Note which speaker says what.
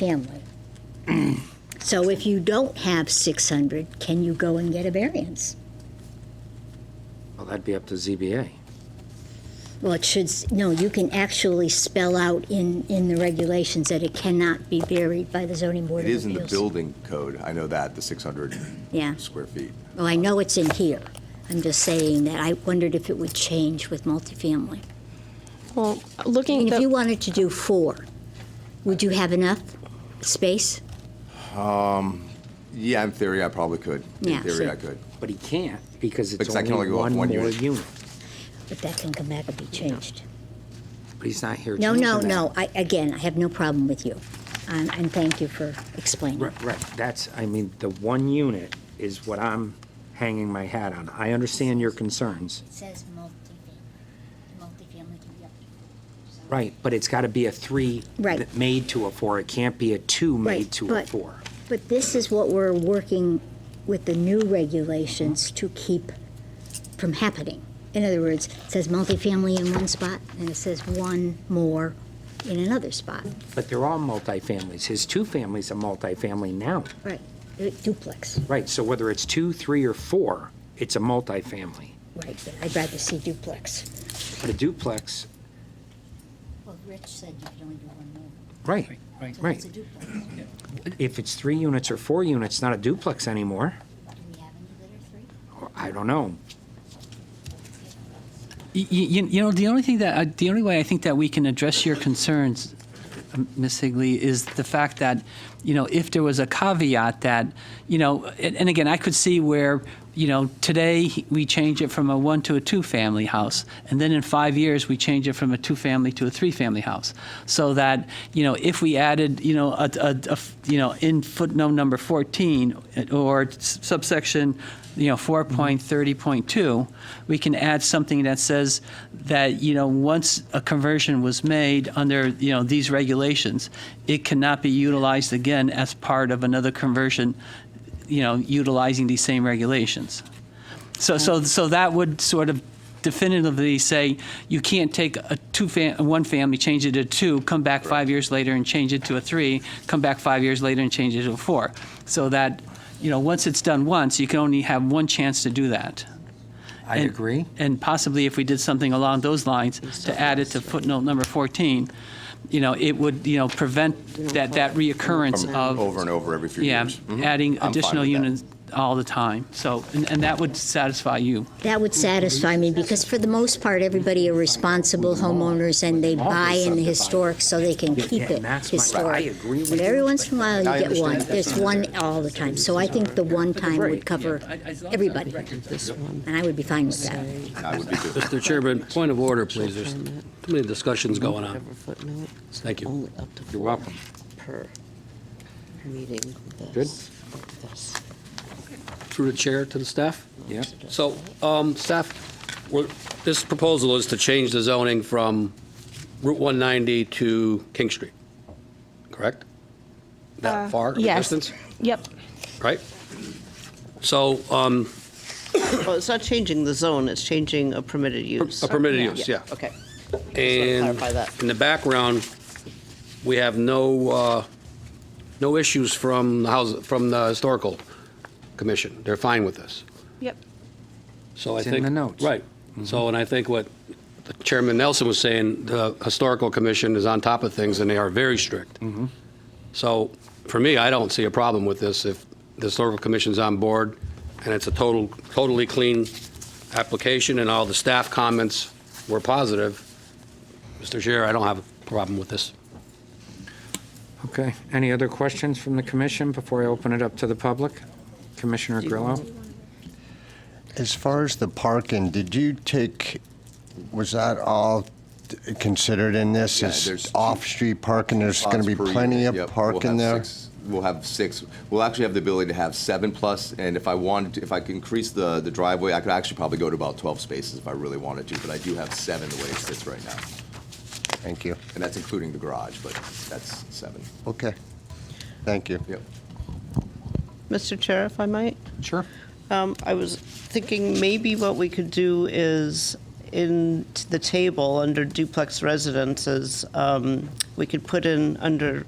Speaker 1: family. So if you don't have 600, can you go and get a variance?
Speaker 2: Well, that'd be up to ZBA.
Speaker 1: Well, it should, s- no, you can actually spell out in, in the regulations that it cannot be varied by the zoning board
Speaker 3: It
Speaker 1: of
Speaker 3: is
Speaker 1: appeals.
Speaker 3: in the building code, I know that, the 600
Speaker 1: Yeah.
Speaker 3: square feet.
Speaker 1: Well, I know it's in here. I'm just saying that I wondered if it would change with multifamily.
Speaker 4: Well,
Speaker 1: I
Speaker 4: looking,
Speaker 1: mean, if you
Speaker 4: the-
Speaker 1: wanted to do four, would you have enough space?
Speaker 3: Yeah, in theory, I probably could.
Speaker 1: Yeah,
Speaker 3: In theory,
Speaker 1: so-
Speaker 3: I could.
Speaker 2: But he can't, because it's
Speaker 3: Because I can
Speaker 2: only
Speaker 3: only go up
Speaker 2: one more
Speaker 3: one unit.
Speaker 2: unit.
Speaker 1: But that can come back and be changed.
Speaker 2: But he's not here
Speaker 1: No,
Speaker 2: changing
Speaker 1: no,
Speaker 2: that.
Speaker 1: no. I, again, I have no problem with you. Um, And thank you for explaining.
Speaker 2: Right, right, that's, I mean, the one unit is what I'm hanging my hat on. I understand your concerns.
Speaker 1: says multifamily. Multifamily can be up to.
Speaker 2: Right, but it's got to be a three
Speaker 1: Right.
Speaker 2: that made to a four. It can't be a two
Speaker 1: Right,
Speaker 2: made to a
Speaker 1: but-
Speaker 2: four.
Speaker 1: But this is what we're working with the new regulations to keep from happening. In other words, it says multifamily in one spot, and it says one more in another spot.
Speaker 2: But they're all multifamilies. His two families a multifamily now.
Speaker 1: Right. Uh, Duplex,
Speaker 2: Right, so whether it's two, three, or four, it's a multifamily.
Speaker 1: right, but I'd rather see duplex.
Speaker 2: But a duplex,
Speaker 1: Well, Rich said you could only do one more.
Speaker 2: right,
Speaker 5: Right.
Speaker 2: Right. it's a
Speaker 1: duplex.
Speaker 2: if it's three units or four units, not a duplex anymore.
Speaker 1: Do we have any that are three?
Speaker 2: I don't know.
Speaker 5: Y- y- You, you know, the only thing that, uh, the only way I think that we can address your concerns, um, Ms. Higley, is the fact that, you know, if there was a caveat that, you know, and, and again, I could see where, you know, today we change it from a one to a two family house, and then in five years we change it from a two family to a three family house. So that, you know, if we added, you know, a, a- a f- you know, in footnote number 14 or s- subsection you know, 4.30.2, we can add something that says that, you know, once a conversion was made under, you know, these regulations, it cannot be utilized again as part of another conversion, you know, utilizing these same regulations. So, so, so that would sort of definitively say you can't take a two fam- one family, change it to two, come back five years later and change it to a three, come back five years later and change it to a four. So that, you know, once it's done once, you can only have one chance to do that.
Speaker 2: I
Speaker 5: And-
Speaker 2: agree.
Speaker 5: And possibly if we did something along those lines to add it to footnote number 14, you know, it would, you know, prevent that, that reoccurrence
Speaker 3: From
Speaker 5: of.
Speaker 3: Over and over every few
Speaker 5: Yeah,
Speaker 3: years. Mhm. I'm
Speaker 5: adding
Speaker 3: fine
Speaker 5: additional
Speaker 3: with that.
Speaker 5: units all the time. So, and, and that would satisfy you.
Speaker 1: That would satisfy me, because for the most part, everybody are responsible homeowners, and they buy in the historic so they can keep
Speaker 2: yeah,
Speaker 1: it
Speaker 2: and that's my- I
Speaker 1: historic.
Speaker 2: agree with
Speaker 1: But
Speaker 2: you,
Speaker 1: every once in a while,
Speaker 3: I
Speaker 1: you get
Speaker 3: understand
Speaker 1: one,
Speaker 3: that.
Speaker 1: there's one all the time, so I think the one time would cover everybody, and I would be fine with that.
Speaker 3: That would be good.
Speaker 6: Mr. Chairman, point of order, please. There's too many discussions going on. Thank you.
Speaker 7: Only up to
Speaker 2: You're
Speaker 7: four
Speaker 2: welcome.
Speaker 7: Per, per meeting.
Speaker 2: Good.
Speaker 7: This, this.
Speaker 6: Through the chair to the staff.
Speaker 2: Yeah.
Speaker 6: So, um, staff, we're- this proposal is to change the zoning from Route 190 to King Street, correct?
Speaker 1: uh,
Speaker 7: Uh,
Speaker 6: That far of a distance,
Speaker 4: yep.
Speaker 6: right? So um,
Speaker 7: Well, oh, it's not changing the zone, it's changing a permitted use.
Speaker 6: a permitted use, yeah.
Speaker 7: Okay.
Speaker 6: And
Speaker 7: clarify that.
Speaker 6: in the background, we have no, uh, no issues from the house, from the historical commission. They're fine with this.
Speaker 4: Yep.
Speaker 6: So I
Speaker 2: It's in
Speaker 6: think.
Speaker 2: the notes. Mm-hmm.
Speaker 6: Right. So, and I think what Chairman Nelson was saying, the Historical Commission is on top of things, and they are very strict.
Speaker 2: Mm-hmm.
Speaker 6: So, for me, I don't see a problem with this if the Historical Commission's on board, and it's a total, totally clean application, and all the staff comments were positive. Mr. Chair, I don't have a problem with this.
Speaker 2: Okay, any other questions from the commission before I open it up to the public? Commissioner Grillo?
Speaker 8: As far as the parking, did you take, was that all considered in this?
Speaker 3: Yeah,
Speaker 8: Is
Speaker 3: there's-
Speaker 8: off-street parking, there's going
Speaker 3: Spots
Speaker 8: to be
Speaker 3: per
Speaker 8: plenty
Speaker 3: unit,
Speaker 8: of
Speaker 3: yep. We'll have
Speaker 8: parking there?
Speaker 3: six- We'll have six. We'll actually have the ability to have seven plus, and if I wanted, to- if I could increase the, the driveway, I could actually probably go to about 12 spaces if I really wanted to, but I do have seven the way it sits right now.
Speaker 8: Thank you.
Speaker 3: And that's including the garage, but that's seven.
Speaker 8: Okay. Thank you.
Speaker 3: Yep.
Speaker 7: Mr. Chair, if I might?
Speaker 2: Sure.
Speaker 7: Um, I was thinking maybe what we could do is in t- the table under duplex residences, um, we could put in under